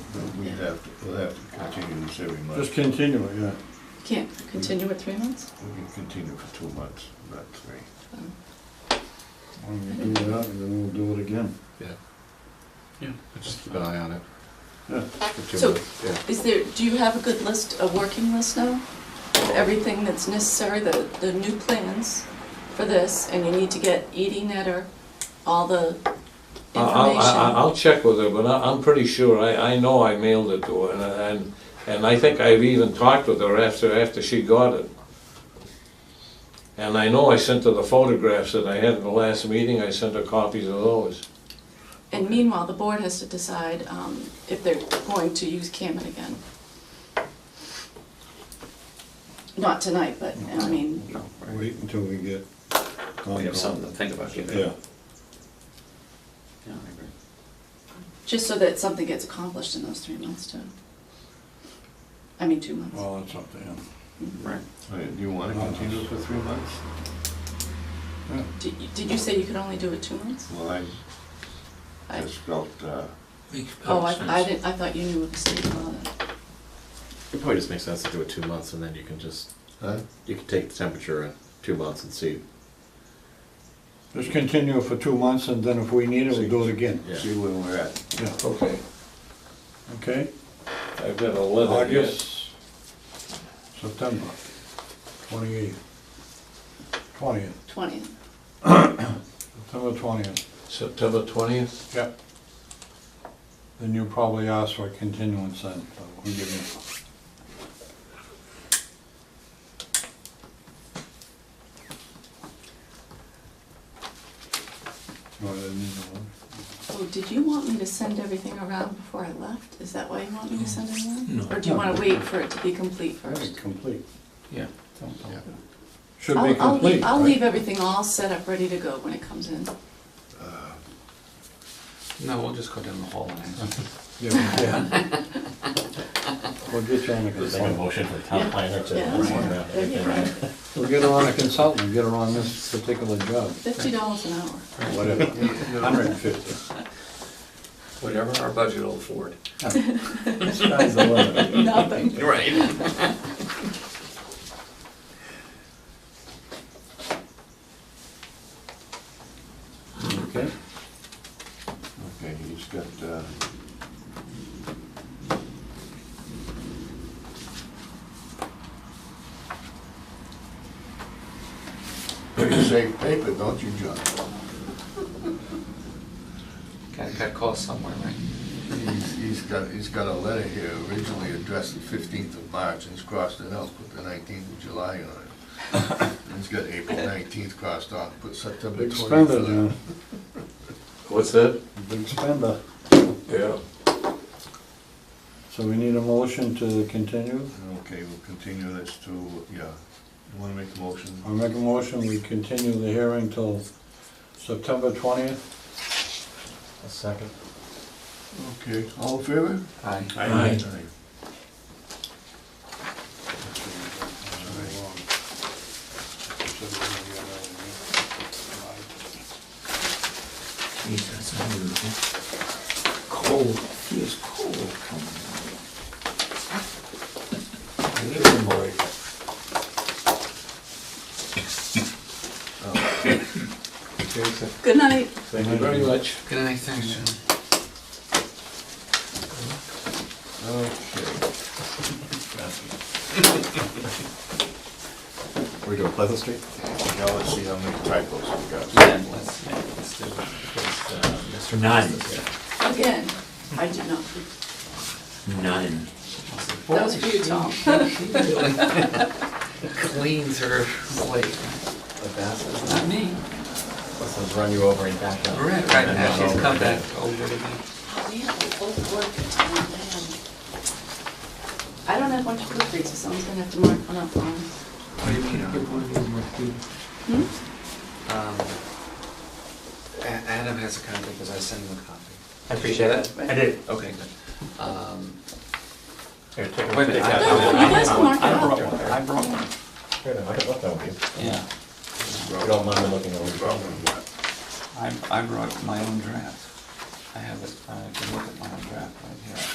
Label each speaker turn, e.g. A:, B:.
A: have, to- we'll have to continue this every month.
B: Just continue it, yeah.
C: Can't continue with three months?
A: We can continue for two months, not three.
B: When we do that, and then we'll do it again.
D: Just keep an eye on it.
B: Yeah.
D: For two
C: So-
D: months, yeah.
C: Is there, do you have a good list, a working list now? Of everything that's necessary, the, the new plans for this, and you need to get Edie Netter, all the
E: I- Uh, I'll, I-
C: information?
E: I'll check with her, but I- I'm pretty sure, I, I know I mailed it to her, and, and, and I think I've even talked with her after, after she got it. And I know I sent her the photographs that I had in the last meeting, I sent her copies of those.
C: And meanwhile, the board has to decide, um, if they're going to use Cameron again. Not tonight, but, I mean,
B: Wait until we get.
F: We have something to think about.
B: Yeah,
F: Yeah, I agree.
C: just so that something gets accomplished in those three months too. I mean, two months.
B: well, that's up to him.
F: Right.
A: All right, Oh, do you wanna continue for three months?
C: Did, you- did you say you could only do it two months?
A: Well, I
C: I-
A: just felt, uh,
C: Oh, I, I didn't, I thought you knew what the state law,
D: It probably just makes sense to do it two months and then you can just,
A: huh?
D: you can take the temperature in two months and see.
B: Just continue it for two months, and then if we need it, we'll do it again.
D: Yeah.
A: see where we're at.
B: Yeah,
E: Okay.
B: okay?
E: I've got a letter here.
B: August, September, twenty-eighth, twentieth,
C: twentieth.
B: September twentieth.
E: September twentieth?
B: Yep. Then you probably ask for a continuance then, but we'll give you. No, I didn't need the one.
C: Oh, did you want me to send everything around before I left? Is that why you want me to send it around? Or do you wanna wait for it to be complete
B: I think
C: first?
B: complete.
F: Yeah.
B: Should
C: I'll-
B: be
C: I'll leave-
B: complete,
C: I'll
B: right?
C: leave everything all set up, ready to go when it comes in.
F: No, we'll just go down the hall and answer.
B: Yeah, yeah. We'll get you on a consultant.
D: motion for the town planner
C: Yeah, that's right. There you go.
B: We'll get her on a consultant, get her on this particular job,
C: Fifty dollars an hour.
B: whatever. Hundred and fifty.
F: Whatever our budget will afford.
B: Sky's the limit.
C: Nothing.
F: Right.
B: Okay.
A: Okay, he's got, uh, you save paper, don't you, John?
F: Got, got call somewhere, right?
A: He's, he's got, he's got a letter here originally addressed the fifteenth of March, and he's crossed it out, put the nineteenth of July on it. And he's got April nineteenth crossed off, put September
B: Big spender,
A: twenty-third.
B: man.
E: What's that?
B: Big spender.
E: Yeah.
B: So we need a motion to continue.
A: Okay, we'll continue this to, yeah, you wanna make a motion?
B: I make a motion, we continue the hearing till September twentieth.
D: A second.
A: Okay, all in favor?
F: Aye.
E: Aye.
F: Cold, he is cold coming.
C: Good night.
E: Thank you very much.
F: Good night, thanks, John.
A: Okay,
D: We're doing Pleasant Street?
A: now let's see how many typos we got.
F: Yeah, let's, yeah, let's do it. Because, uh, Mr.
G: None.
F: Moses-
C: Again, I did not.
G: None.
C: That was you, Tom.
F: Cleans her plate.
D: The bastards.
F: Not me.
D: Let's just run you over and back up.
F: Right, right, now she's come back over to me.
C: We have a full board for tonight, I am- I don't have one to look at, so someone's gonna have to mark one up on.
F: What do you mean, give one of these more food?
C: Hmm?
F: Um, A- Adam has a copy because I sent him a copy.
G: I appreciate it.
C: Right.
G: I did.
F: Okay, good. Um,
G: Here, take
F: Wait a minute, I-
C: No, you guys can mark it
G: I
C: up.
G: brought one, I brought one.
D: Fair enough, I can let that one be. If
F: yeah,
D: you don't mind me looking over.
F: I, I brought my own draft. I have it, I can look at my own draft right here.